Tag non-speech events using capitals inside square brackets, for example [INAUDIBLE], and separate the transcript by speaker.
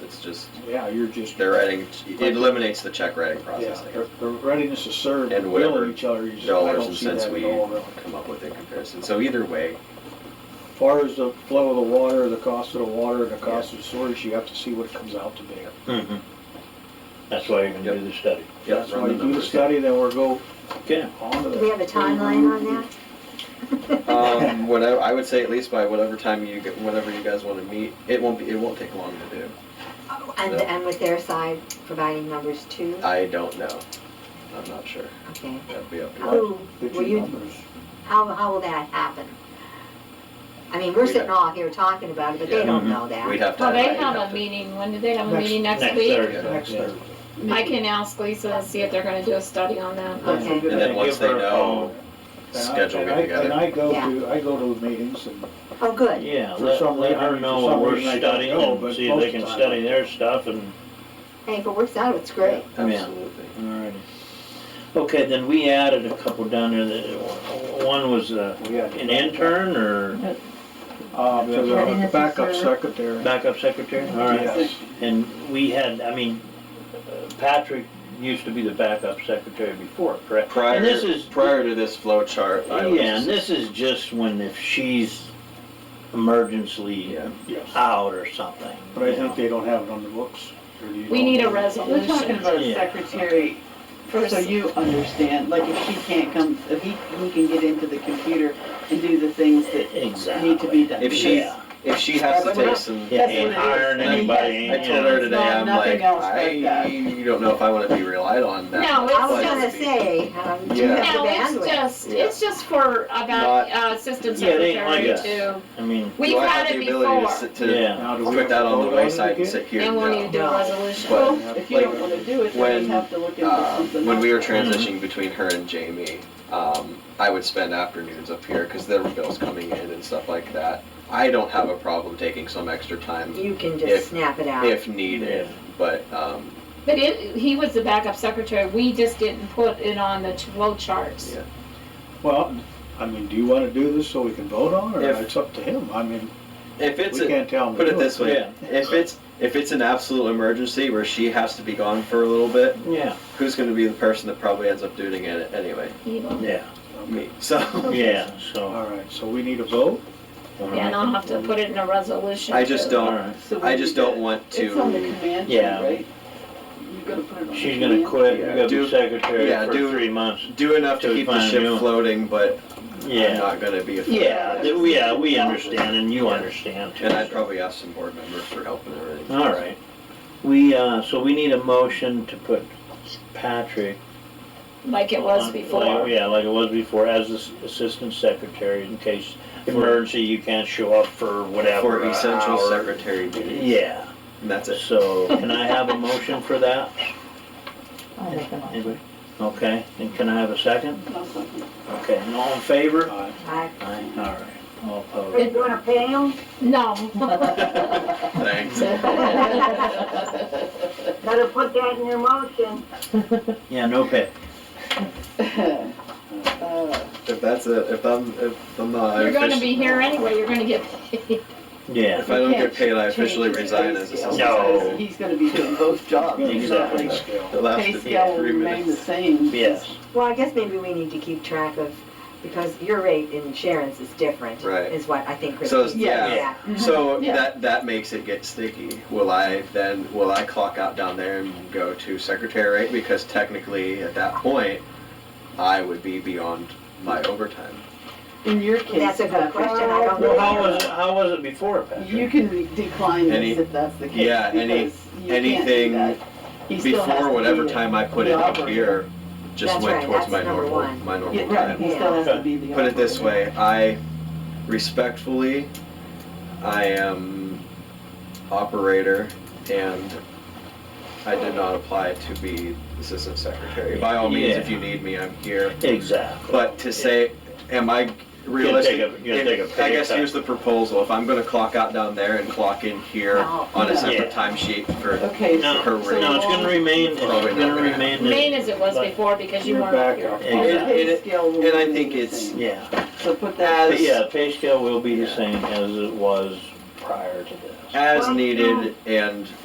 Speaker 1: It's just,
Speaker 2: Yeah, you're just.
Speaker 1: they're writing, it eliminates the check writing process,
Speaker 2: Yeah,
Speaker 1: I
Speaker 2: the-
Speaker 1: guess.
Speaker 2: the readiness to serve,
Speaker 1: And
Speaker 2: billing
Speaker 1: whatever
Speaker 2: each other, you just, I
Speaker 1: Dollars
Speaker 2: don't
Speaker 1: and
Speaker 2: see that
Speaker 1: cents
Speaker 2: at
Speaker 1: we
Speaker 2: all, really.
Speaker 1: come up with in comparison. So either way,
Speaker 2: As far as the flow of the water, the cost of the water, and the cost of the storage, you have to see what it comes out to be.
Speaker 1: Mm-hmm.
Speaker 3: That's why you're gonna do the study.
Speaker 1: yeah,
Speaker 2: That's
Speaker 1: run
Speaker 2: why
Speaker 1: the
Speaker 2: you do the
Speaker 1: numbers.
Speaker 2: study, then we'll go
Speaker 3: Okay.
Speaker 2: on to
Speaker 4: Do
Speaker 2: the.
Speaker 4: we have a timeline on that?
Speaker 1: Um, whatever, I would say at least by whatever time you, get- whenever you guys want to meet, it won't be, it won't take long to do.
Speaker 4: And,
Speaker 1: Yeah.
Speaker 4: and with their side providing numbers too?
Speaker 1: I don't know. I'm not sure.
Speaker 4: Okay.
Speaker 1: That'd be up to
Speaker 4: How,
Speaker 1: you.
Speaker 2: The
Speaker 4: will
Speaker 2: two
Speaker 4: you,
Speaker 2: numbers.
Speaker 4: how, how will that happen? I mean, we're
Speaker 1: We'd
Speaker 4: sitting
Speaker 1: have-
Speaker 4: all here talking about it, but they
Speaker 1: Yeah.
Speaker 4: don't
Speaker 3: Mhm.
Speaker 4: know
Speaker 1: We'd
Speaker 4: that.
Speaker 1: have to.
Speaker 5: Well, they
Speaker 1: I'd have
Speaker 5: have a
Speaker 1: to-
Speaker 5: meeting, when do they have a
Speaker 2: Next-
Speaker 5: meeting, next
Speaker 3: Next
Speaker 5: week?
Speaker 3: Thursday.
Speaker 2: Next Thursday.
Speaker 5: I can ask Lisa and see if they're gonna do a study on that, but
Speaker 4: Okay.
Speaker 1: And then once they know,
Speaker 2: And I-
Speaker 1: schedule
Speaker 2: and
Speaker 1: get
Speaker 2: I- And
Speaker 1: together.
Speaker 2: I go
Speaker 4: Yeah.
Speaker 2: to, I go to the meetings and
Speaker 4: Oh,
Speaker 3: Uh,
Speaker 4: good.
Speaker 3: Yeah,
Speaker 2: For
Speaker 3: let,
Speaker 2: some
Speaker 3: let
Speaker 2: reason-
Speaker 3: her
Speaker 2: for
Speaker 3: know
Speaker 2: some
Speaker 3: what we're
Speaker 2: reason I don't
Speaker 3: studying
Speaker 2: know,
Speaker 3: and
Speaker 2: but
Speaker 3: see if they
Speaker 2: most
Speaker 3: can
Speaker 2: of the time-
Speaker 3: study their stuff and.
Speaker 4: Hey, if it works out, it's great.
Speaker 1: Absolutely.
Speaker 3: Alrighty. Okay, then we added a couple down there that, one was uh,
Speaker 2: we had.
Speaker 3: an intern or
Speaker 2: Uh, to the
Speaker 4: Readiness to
Speaker 2: backup
Speaker 4: serve.
Speaker 2: secretary.
Speaker 3: backup secretary? Alright,
Speaker 2: Yes.
Speaker 3: and we had, I mean, Patrick used to be the backup secretary before, correct? And this
Speaker 1: Prior,
Speaker 3: is,
Speaker 1: prior to this flow chart, I
Speaker 3: yeah, and
Speaker 1: was,
Speaker 3: this is just when if she's emergency
Speaker 1: yeah,
Speaker 2: Yes.
Speaker 3: out or something.
Speaker 2: But I
Speaker 3: you know.
Speaker 2: think they don't have it on the books. or do you
Speaker 5: we
Speaker 2: know?
Speaker 5: need a
Speaker 6: We're talking
Speaker 5: resolution.
Speaker 6: about
Speaker 3: Yeah.
Speaker 6: a secretary, so you understand, like if she can't come, if he, he can get into the computer and do the things that need to be
Speaker 3: Exactly.
Speaker 6: done.
Speaker 1: If she-
Speaker 3: Yeah.
Speaker 1: if she has to take some,
Speaker 3: Yeah, ain't
Speaker 6: That's what it is.
Speaker 3: hiring
Speaker 6: I mean,
Speaker 3: anybody,
Speaker 1: I
Speaker 6: yes,
Speaker 1: told her
Speaker 6: it's
Speaker 1: today,
Speaker 6: not-
Speaker 1: I'm
Speaker 6: nothing
Speaker 1: like,
Speaker 6: else but
Speaker 1: I
Speaker 6: that.
Speaker 1: you don't know if I want to be relied on that.
Speaker 5: No, it's
Speaker 4: I was
Speaker 1: much.
Speaker 4: gonna say, um, do you
Speaker 1: Yeah.
Speaker 4: have
Speaker 5: No,
Speaker 4: the
Speaker 5: it's
Speaker 4: bandwidth?
Speaker 5: just, it's just for about, uh, assistant
Speaker 3: Yeah, they ain't like
Speaker 5: secretary
Speaker 3: us.
Speaker 5: to,
Speaker 3: I mean,
Speaker 1: Do
Speaker 5: we've
Speaker 1: I
Speaker 5: had
Speaker 1: have
Speaker 5: it
Speaker 1: the ability
Speaker 5: before,
Speaker 1: to sit, to
Speaker 3: yeah,
Speaker 2: Now, do we
Speaker 1: put
Speaker 2: have to
Speaker 1: that on
Speaker 2: vote
Speaker 1: the
Speaker 2: it
Speaker 1: wayside and
Speaker 2: again?
Speaker 1: sit here?
Speaker 5: and we'll
Speaker 1: No.
Speaker 5: need to do a resolution.
Speaker 1: But-
Speaker 6: Well, if you don't wanna do it, then
Speaker 1: When,
Speaker 6: you have to look into
Speaker 1: Uh,
Speaker 6: something else.
Speaker 1: when we were transitioning between her and Jamie, um, I would spend afternoons up here because there were bills coming in and stuff like that. I don't have a problem taking some extra time
Speaker 4: You can
Speaker 1: If-
Speaker 4: just snap it out.
Speaker 1: if needed, but um,
Speaker 5: But it, he was the backup secretary, we just didn't put it on the flow charts.
Speaker 1: Yeah.
Speaker 2: Well, I mean, do you want to do this so we can vote on, it, or
Speaker 1: If-
Speaker 2: it's up to him? I mean,
Speaker 1: if
Speaker 2: we
Speaker 1: it's a,
Speaker 2: can't tell him. to
Speaker 1: put it
Speaker 2: do
Speaker 1: this way,
Speaker 3: Yeah.
Speaker 1: if it's if it's an absolute emergency where she has to be gone for a little bit,
Speaker 3: yeah,
Speaker 1: who's going to be the person that probably ends up doing it anyway?
Speaker 5: He will.
Speaker 3: yeah,
Speaker 1: Me. So [LAUGHS]
Speaker 3: yeah, so.
Speaker 2: All right, so we need a vote?
Speaker 5: Yeah, and I'll have to put it in a resolution.
Speaker 1: I just
Speaker 5: too.
Speaker 1: don't.
Speaker 3: Alright.
Speaker 6: So we
Speaker 1: I just
Speaker 6: did that.
Speaker 1: don't want to.
Speaker 6: It's on the command sheet,
Speaker 3: Yeah.
Speaker 6: right? You're gonna put it on the
Speaker 3: She's gonna
Speaker 6: command.
Speaker 3: quit,
Speaker 1: [LAUGHS]
Speaker 3: you
Speaker 6: [LAUGHS]
Speaker 1: Yeah,
Speaker 3: gotta
Speaker 1: do-
Speaker 3: be secretary
Speaker 1: yeah,
Speaker 3: for
Speaker 1: do-
Speaker 3: three months,
Speaker 1: do enough to
Speaker 3: To
Speaker 1: keep the
Speaker 3: find
Speaker 1: ship
Speaker 3: you.
Speaker 1: floating, but I'm
Speaker 3: yeah.
Speaker 1: not going to be a
Speaker 3: Yeah, th- we- yeah, we understand, and you understand too.
Speaker 1: And I'd probably ask some board members for help and everything.
Speaker 3: All right, we, uh, so we need a motion to put Patrick.
Speaker 5: Like it was
Speaker 3: on-
Speaker 5: before.
Speaker 3: like- Yeah, like it was before, as the s- assistant secretary, in case emergency, you can't show up for whatever.
Speaker 1: For essential
Speaker 3: hour.
Speaker 1: secretary duties.
Speaker 3: Yeah.
Speaker 1: And that's it.
Speaker 3: [LAUGHS] So, can I have a motion for that? Anybody? Okay, and can I have a second?
Speaker 6: I'll second.
Speaker 3: Okay, and all in favor?
Speaker 2: Aye.
Speaker 4: I-
Speaker 3: Aye, all right, all
Speaker 4: Are you
Speaker 3: opposed.
Speaker 4: gonna pay them?
Speaker 5: No.
Speaker 1: Thanks.
Speaker 4: Better put that in your motion.
Speaker 3: Yeah, no pay.
Speaker 6: Uh,
Speaker 1: If that's it, if I'm, if I'm not. I
Speaker 5: [LAUGHS] You're gonna
Speaker 1: offici-
Speaker 5: be here anyway, you're gonna get paid.
Speaker 3: Yeah,
Speaker 1: If I don't
Speaker 6: you
Speaker 1: get
Speaker 6: can't
Speaker 1: paid, I
Speaker 6: change
Speaker 1: officially
Speaker 6: the pay
Speaker 1: resign as
Speaker 6: scale,
Speaker 1: assistant.
Speaker 3: No.
Speaker 1: secretary.
Speaker 6: because He's gonna
Speaker 1: [LAUGHS]
Speaker 6: be doing both jobs.
Speaker 3: Exactly.
Speaker 1: The
Speaker 2: Scale.
Speaker 1: last
Speaker 6: Pay
Speaker 1: of
Speaker 6: scale
Speaker 1: the
Speaker 6: will
Speaker 1: three
Speaker 6: remain the
Speaker 1: minutes.
Speaker 6: same.
Speaker 3: yes,
Speaker 4: Well, I guess maybe we need to keep track of, because your rate in Sharon's is different.
Speaker 1: Right.
Speaker 4: Is what I think
Speaker 1: So,
Speaker 4: Christine
Speaker 1: yeah.
Speaker 4: said.
Speaker 3: Yeah.
Speaker 1: So
Speaker 6: Mm-hmm. Yeah.
Speaker 1: that, that makes it get sticky. Will I then, will I clock out down there and go to secretary rate? Because technically, at that point, I would be beyond my
Speaker 6: Mm-hmm.
Speaker 1: overtime.
Speaker 6: In your case.
Speaker 4: That's a good
Speaker 6: Patrick,
Speaker 4: question, I don't
Speaker 3: well, how
Speaker 4: know.
Speaker 3: was, it- how was it before, Patrick?
Speaker 6: You can re- decline
Speaker 1: Any-
Speaker 6: this if that's the case.
Speaker 1: yeah, any-
Speaker 6: because you can't do
Speaker 1: anything
Speaker 6: that. He still has to
Speaker 1: Before
Speaker 6: be
Speaker 1: whatever
Speaker 6: the-
Speaker 1: time I put in
Speaker 6: the
Speaker 1: up
Speaker 6: operator.
Speaker 1: here, just
Speaker 4: That's
Speaker 1: went
Speaker 4: right,
Speaker 1: towards
Speaker 4: that's
Speaker 1: my
Speaker 4: number
Speaker 1: normal,
Speaker 4: one.
Speaker 1: my normal
Speaker 6: Yeah,
Speaker 1: time.
Speaker 6: right, he still has to be the.
Speaker 1: Put it this
Speaker 6: operator.
Speaker 1: way, I respectfully, I am operator and I did not apply to be assistant secretary. By all means, if
Speaker 3: Yeah.
Speaker 1: you need me, I'm here.
Speaker 3: Exactly.
Speaker 1: But to say, am I
Speaker 3: You're gonna
Speaker 1: realistic?
Speaker 3: take a, you're gonna take a
Speaker 1: If- I
Speaker 3: pay
Speaker 1: guess
Speaker 3: cut.
Speaker 1: here's the proposal. If I'm gonna clock out down there and clock in here
Speaker 4: No.
Speaker 1: on a
Speaker 6: Oh, Yeah.
Speaker 1: separate timesheet for,
Speaker 6: Okay. so-
Speaker 3: No,
Speaker 1: Her
Speaker 6: so
Speaker 1: rate.
Speaker 3: no, it's gonna remain, it's
Speaker 1: Probably not
Speaker 3: gonna
Speaker 1: gonna happen.
Speaker 5: [LAUGHS]
Speaker 3: remain. the-
Speaker 5: Maine as it was
Speaker 3: But-
Speaker 5: before because you
Speaker 2: You're
Speaker 5: weren't
Speaker 2: back
Speaker 5: here.
Speaker 2: up.
Speaker 6: the
Speaker 3: Exactly.
Speaker 6: pay
Speaker 1: And it-
Speaker 6: scale will
Speaker 1: and I
Speaker 6: remain
Speaker 1: think
Speaker 6: the
Speaker 1: it's-
Speaker 6: same.
Speaker 3: Yeah,
Speaker 6: So put
Speaker 1: As-
Speaker 6: that.
Speaker 3: But yeah, pay scale will be the
Speaker 1: Yeah.
Speaker 3: same as it was prior to this.
Speaker 1: as
Speaker 4: Well,
Speaker 1: needed and